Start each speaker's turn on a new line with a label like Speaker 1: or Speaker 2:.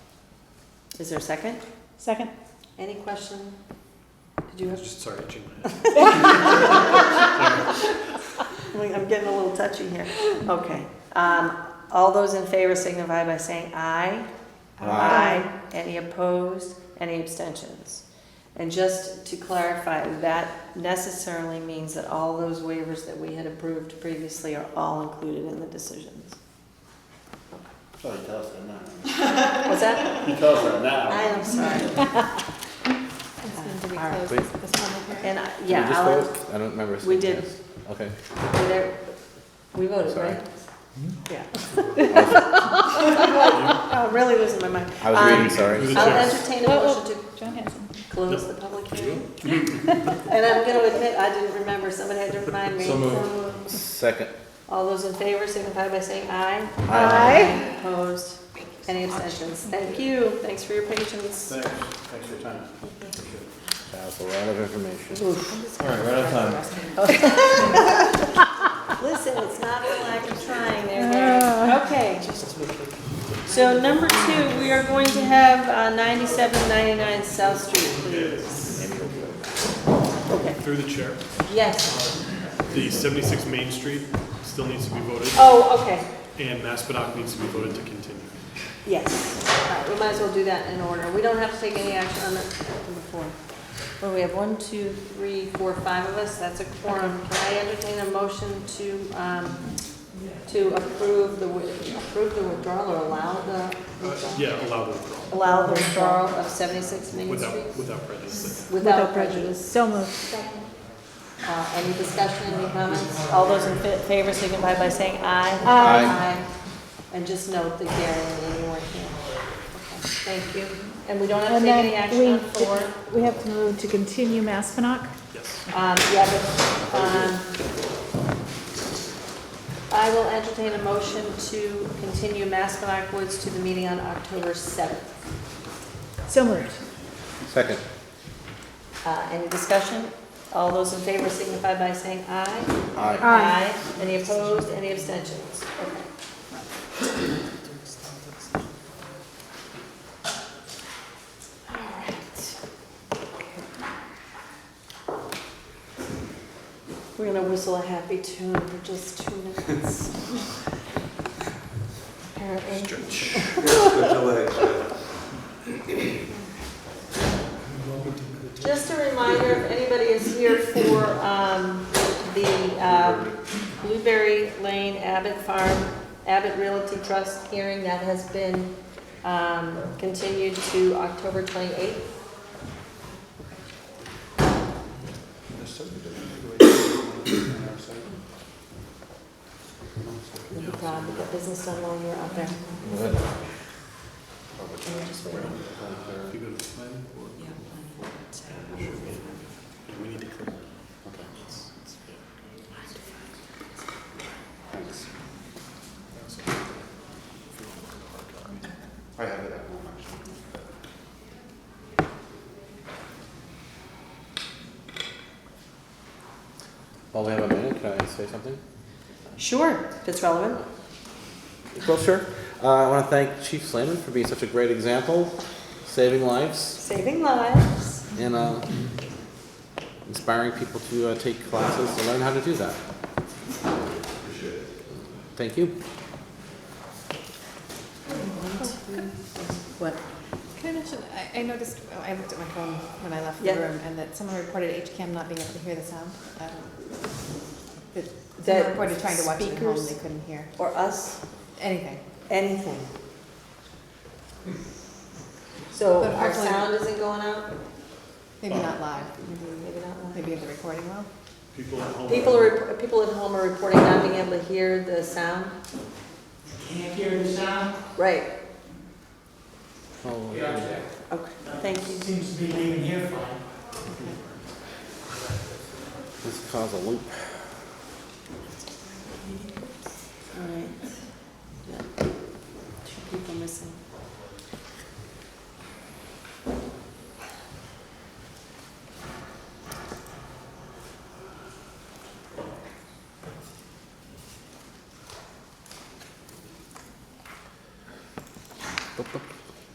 Speaker 1: Is there a second?
Speaker 2: Second?
Speaker 1: Any question? Did you have,
Speaker 3: Just sorry, itching my head.
Speaker 1: Wait, I'm getting a little touchy here. Okay. Um, all those in favor signify by saying aye.
Speaker 4: Uh,
Speaker 2: Aye.
Speaker 1: Any opposed? Any abstentions? And just to clarify, that necessarily means that all those waivers that we had approved previously are all included in the decisions.
Speaker 5: Sorry, tell us that now.
Speaker 1: What's that?
Speaker 5: You tell us that
Speaker 1: I
Speaker 5: now.
Speaker 1: am sorry.
Speaker 2: It's going to be
Speaker 1: Uh, All right.
Speaker 2: closed at this moment.
Speaker 1: And, I-
Speaker 4: Did we
Speaker 1: yeah,
Speaker 4: just
Speaker 1: I'll,
Speaker 4: vote? I don't remember. us
Speaker 1: we
Speaker 4: doing
Speaker 1: did.
Speaker 4: this. Okay.
Speaker 1: we there- we voted,
Speaker 4: Sorry.
Speaker 1: right?
Speaker 2: Yeah.
Speaker 1: Oh, I'm really losing my mind.
Speaker 4: I was
Speaker 1: Um,
Speaker 4: reading, sorry.
Speaker 3: Who's-
Speaker 1: I'll entertain a
Speaker 2: Whoa, whoa.
Speaker 1: motion to
Speaker 2: John Hanson.
Speaker 1: close the public hearing. And I'm gonna admit, I didn't remember, somebody had to remind me.
Speaker 3: So
Speaker 4: Second.
Speaker 1: All those in favor signify by saying aye.
Speaker 2: Aye.
Speaker 1: Opposed? Any abstentions? Thank you, thanks for your patience.
Speaker 5: Thanks, thanks for your time.
Speaker 4: That was a lot of information.
Speaker 5: All right, right on time.
Speaker 1: Listen, it's not for lack of trying, there, there. Okay. So number two, we are going to have uh, 9799 South Street, please. Okay,
Speaker 3: Through the chair,
Speaker 1: yes,
Speaker 3: the 76 Main Street still needs to be voted,
Speaker 1: oh, okay,
Speaker 3: and Maspinock needs to be voted to continue.
Speaker 1: yes. All right, we might as well do that in order. We don't have to take any action on the- number four. Well, we have one, two, three, four, five of us, that's a quorum. Can I entertain a motion to, um, to approve the, wi- approve the withdrawal or allow the
Speaker 3: Uh,
Speaker 1: withdrawal?
Speaker 3: Yeah, allow the withdrawal,
Speaker 1: Allow the withdrawal of 76 Main
Speaker 3: without,
Speaker 1: Street
Speaker 3: without prejudice.
Speaker 1: without prejudice.
Speaker 2: So moved.
Speaker 1: Uh, Any discussion, any comments? All those in fa- favor signify by saying aye.
Speaker 4: Aye.
Speaker 1: And just note that Gary and Amy weren't here. Okay, Thank you. And we don't have to
Speaker 2: And
Speaker 1: take any
Speaker 2: then
Speaker 1: action on
Speaker 2: we,
Speaker 1: four.
Speaker 2: we have to move to continue Maspinock.
Speaker 3: Yes.
Speaker 1: Um, yeah, but, um, I will entertain a motion to continue Maspinock Woods to the meeting on October 7th.
Speaker 2: So moved.
Speaker 4: Second.
Speaker 1: Uh, any discussion? All those in favor signify by saying aye.
Speaker 4: Aye.
Speaker 2: Aye.
Speaker 1: Any opposed, any abstentions? Okay. All right. We're gonna whistle a happy tune for just two minutes. Apparently.
Speaker 3: Stretch.
Speaker 1: Just a reminder, if anybody is here for um, the uh, Blueberry Lane Abbott Farm, Abbott Realty Trust hearing, that has been um, continued to October 28th. You'll be proud we got business done while you were out there.
Speaker 3: If you go to the plan, or- Yeah, We need to clear.
Speaker 5: I have it at home, actually.
Speaker 4: While we have a minute, can I say something?
Speaker 1: Sure, if it's relevant.
Speaker 4: Well, sure. Uh, I want to thank Chief Slayman for being such a great example, saving lives
Speaker 1: Saving lives.
Speaker 4: and uh, inspiring people to uh, take classes to learn how to do that. Thank you.
Speaker 1: What?
Speaker 6: Can I mention, I, I noticed, oh, I looked at my phone when I left the
Speaker 1: Yeah.
Speaker 6: room, and that someone reported HCAM not being able to hear the sound. Um, That
Speaker 1: That
Speaker 6: someone reported trying to watch it at home, they
Speaker 1: speakers-
Speaker 6: couldn't hear
Speaker 1: Or us,
Speaker 6: anything.
Speaker 1: anything. So
Speaker 6: Hmm. But
Speaker 1: our
Speaker 6: hopefully-
Speaker 1: sound isn't going out?
Speaker 6: Maybe not live,
Speaker 1: Maybe not.
Speaker 6: maybe at the recording well.
Speaker 3: People at home.
Speaker 1: People are, rep- people at home are reporting not being able to hear the sound?
Speaker 7: Can't hear the sound?
Speaker 1: Right,
Speaker 4: Oh,
Speaker 1: okay, thank you.
Speaker 7: Seems to be leaving here fine.
Speaker 4: This caused a loop.
Speaker 1: All right. Yeah. Two people missing.